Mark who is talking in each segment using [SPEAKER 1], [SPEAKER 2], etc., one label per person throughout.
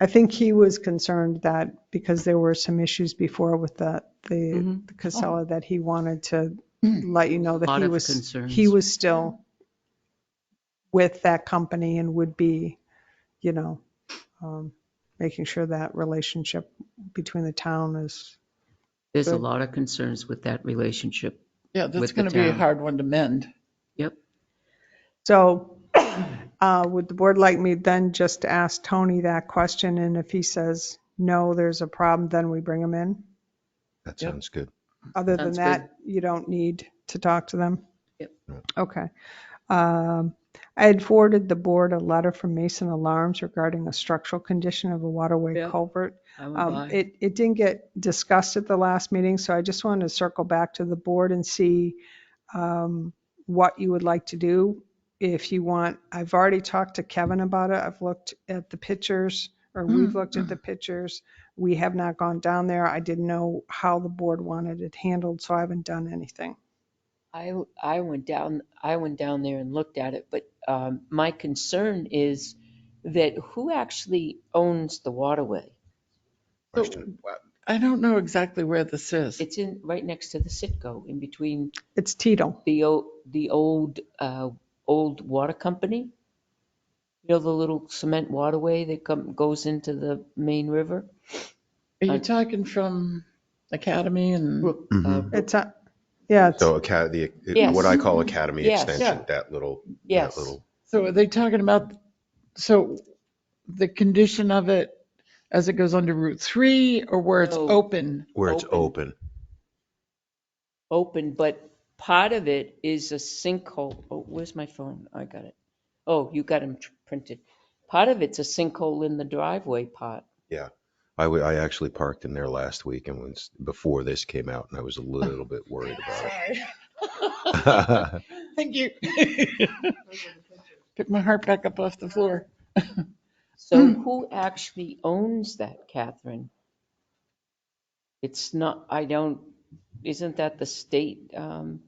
[SPEAKER 1] I think he was concerned that because there were some issues before with the, the the Casella, that he wanted to let you know
[SPEAKER 2] Mm-hmm.
[SPEAKER 1] that
[SPEAKER 2] Lot
[SPEAKER 1] he
[SPEAKER 2] of
[SPEAKER 1] was,
[SPEAKER 2] concerns.
[SPEAKER 1] he was still with that company and would be, you know, um, making sure that relationship between the town is,
[SPEAKER 2] There's a lot of concerns with that relationship.
[SPEAKER 3] Yeah,
[SPEAKER 2] with
[SPEAKER 3] that's
[SPEAKER 2] the
[SPEAKER 3] going to be a
[SPEAKER 2] town.
[SPEAKER 3] hard one to mend.
[SPEAKER 2] Yep.
[SPEAKER 1] so uh, would the board like me then just to ask Tony that question? And if he says, no, there's a problem, then we bring him in?
[SPEAKER 4] That
[SPEAKER 3] Yep.
[SPEAKER 4] sounds good.
[SPEAKER 1] Other than
[SPEAKER 2] Sounds good.
[SPEAKER 1] that, you don't need to talk to them?
[SPEAKER 2] Yep.
[SPEAKER 4] Right.
[SPEAKER 1] Okay. Um, I had forwarded the board a letter from Mason Alarms regarding a structural condition of a waterway
[SPEAKER 2] Yep.
[SPEAKER 1] culvert.
[SPEAKER 2] I went
[SPEAKER 1] Um,
[SPEAKER 2] by.
[SPEAKER 1] It, it didn't get discussed at the last meeting, so I just wanted to circle back to the board and see um, what you would like to do. If you want, I've already talked to Kevin about it. I've looked at the pictures, or we've looked at the pictures. We have not gone down there. I didn't know how the board wanted it handled, so I haven't done anything.
[SPEAKER 5] I, I went down, I went down there and looked at it, but um, my concern is that who actually owns the waterway?
[SPEAKER 3] So,
[SPEAKER 4] Question.
[SPEAKER 3] I don't know exactly where this is.
[SPEAKER 5] It's in, right next to the Sitco, in between
[SPEAKER 1] It's Tito.
[SPEAKER 5] the, o- the old, uh, old water company. You know, the little cement waterway that come, goes into the main river?
[SPEAKER 3] Are you
[SPEAKER 5] I-
[SPEAKER 3] talking from Academy and,
[SPEAKER 5] Brook- uh,
[SPEAKER 4] Mhm.
[SPEAKER 1] It's, a- yeah, it's-
[SPEAKER 4] So aca- the, e,
[SPEAKER 5] Yes.
[SPEAKER 4] what I call academy
[SPEAKER 5] Yes.
[SPEAKER 4] extension, that little, that
[SPEAKER 5] Yes.
[SPEAKER 4] little,
[SPEAKER 3] so are they talking about, so the condition of it as it goes under Route 3 or where it's
[SPEAKER 2] Oh.
[SPEAKER 5] No.
[SPEAKER 3] open?
[SPEAKER 4] where it's
[SPEAKER 5] Open.
[SPEAKER 4] open.
[SPEAKER 5] open, but part of it is a sinkhole. Oh, where's my phone? I got it. Oh, you got them printed. Part of it's a sinkhole in the driveway part.
[SPEAKER 4] I wa- I actually parked in there last week and was, before this came out and I was a little bit worried about it.
[SPEAKER 3] Thank you. Pick my heart back up off the floor.
[SPEAKER 5] So who actually owns that, Catherine? It's not, I don't, isn't that the state? um,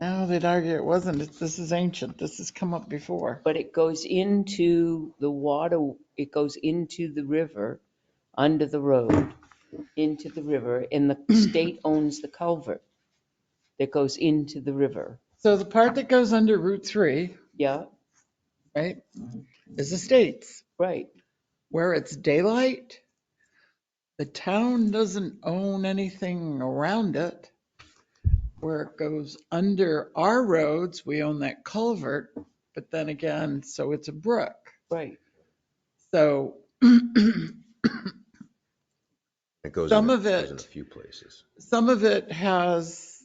[SPEAKER 3] No, they'd argue it wasn't. It's- This is ancient. This has come up before.
[SPEAKER 5] But it goes into the water, it goes into the river, under the road, into the river, and the state owns the culvert that goes into the river.
[SPEAKER 3] So the part that goes under Route 3,
[SPEAKER 5] Yeah,
[SPEAKER 3] right, is the state's.
[SPEAKER 5] right.
[SPEAKER 3] where it's daylight, the town doesn't own anything around it. Where it goes under our roads, we own that culvert, but then again, so it's a brook.
[SPEAKER 5] Right.
[SPEAKER 3] So
[SPEAKER 4] It goes
[SPEAKER 3] Some
[SPEAKER 4] in-
[SPEAKER 3] of
[SPEAKER 4] goes In a
[SPEAKER 3] it-
[SPEAKER 4] few places.
[SPEAKER 3] some of it has,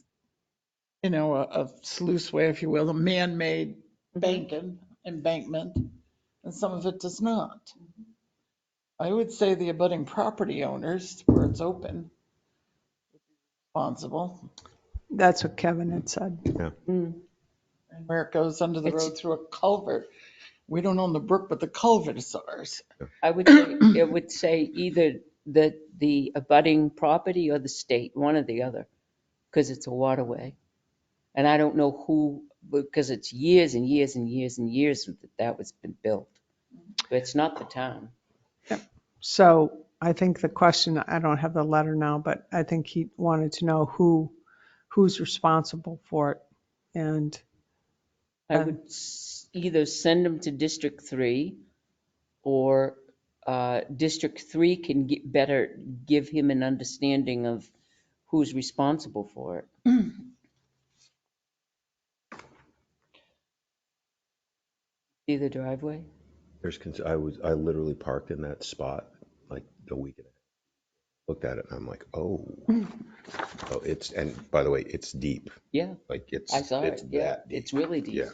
[SPEAKER 3] you know, a, a sluice way, if you will, a man-made banking, embankment, and some of it does not. I would say the abutting property owners, where it's open, responsible,
[SPEAKER 1] that's what Kevin had said.
[SPEAKER 3] and where it goes under the
[SPEAKER 5] It's-
[SPEAKER 3] road through a culvert. We don't own the brook, but the culvert is ours.
[SPEAKER 5] I would, say it would say either the, the abutting property or the state, one or the other, because it's a waterway. And I don't know who, because it's years and years and years and years that that was been built. But it's not the town.
[SPEAKER 1] So I think the question, I don't have the letter now, but I think he wanted to know who, who's responsible for it. And
[SPEAKER 5] I
[SPEAKER 1] Okay.
[SPEAKER 5] would s- either send them to District Three or uh, District Three can get better, give him an understanding of who's responsible for it. See the driveway?
[SPEAKER 4] There's, cons- I was, I literally parked in that spot like a week ago. Looked at it and I'm like, oh. Oh, it's, and by the way, it's deep.
[SPEAKER 5] Yeah,
[SPEAKER 4] Like it's,
[SPEAKER 5] I saw
[SPEAKER 4] it's
[SPEAKER 5] it. Yeah,
[SPEAKER 4] that deep.
[SPEAKER 5] it's really deep.
[SPEAKER 4] Yeah.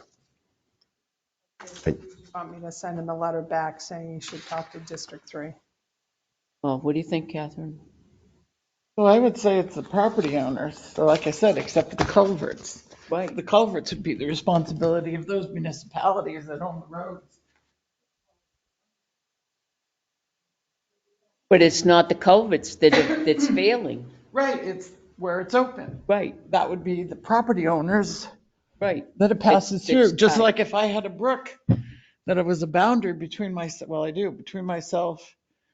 [SPEAKER 1] want me to send him a letter back saying you should talk to District Three?
[SPEAKER 5] Well, what do you think, Catherine?
[SPEAKER 3] So I would say it's the property owners, so like I said, except for the culverts.
[SPEAKER 5] Right.
[SPEAKER 3] The culverts would be the responsibility of those municipalities that own the roads.
[SPEAKER 5] But it's not the culverts that, are- that's failing.
[SPEAKER 3] Right, it's where it's open.
[SPEAKER 5] Right,
[SPEAKER 3] That would be the property owners
[SPEAKER 5] right.
[SPEAKER 3] that it passes
[SPEAKER 5] It's-
[SPEAKER 3] through,
[SPEAKER 5] it's
[SPEAKER 3] just
[SPEAKER 5] tight.
[SPEAKER 3] like if I had a brook, that it was a boundary between myself, well, I do, between myself